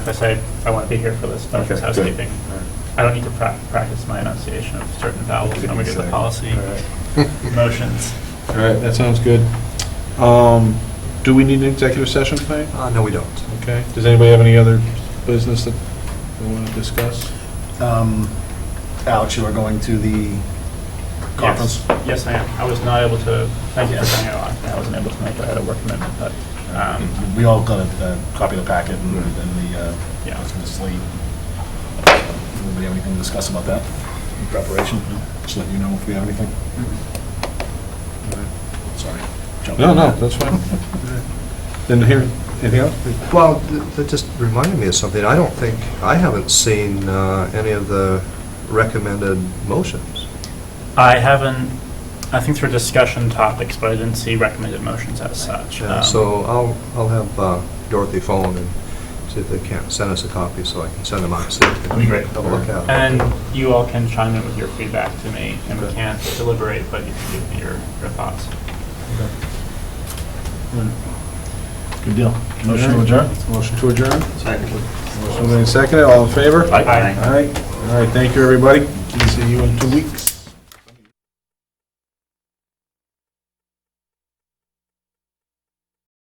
I said, I want to be here for this, but it's Okay, good. housekeeping. All right. I don't need to prac- practice my enunciation of certain vowels, and we get the policy All right. motions. All right, that sounds good. Um, Do we need an executive session tonight? Uh, no, we don't. Okay. Does anybody have any other business that they want to discuss? Um, Alex, you are going to the conference? Yes, yes, I am. I was not able to, thank you for bringing it on. I wasn't able to make it, I had a work commitment, but, um, We all got a a copy of the packet and and the, uh, Yeah. it's gonna slate. Anybody have anything to discuss about that in preparation? Just let you know if we have anything. Sorry. Jump No, in. no, that's fine. Then here, anything else? Well, th- that just reminded me of something. I don't think, I haven't seen uh, any of the recommended motions. I haven't, I think through discussion topics, but I didn't see recommended motions as such. Yeah, Um, So I'll, I'll have uh, Dorothy phone and see if they can send us a copy so I can send them out. That'd be great. Have a look at them. And you all can chime in with your feedback to me, and we Okay. can't deliberate, but you can give me your your thoughts. Good deal. Motion to adjourn? Motion to adjourn? Second. Motion made and seconded, all in favor? Aye. Aye. All right, all right, thank you, everybody. See you in two weeks.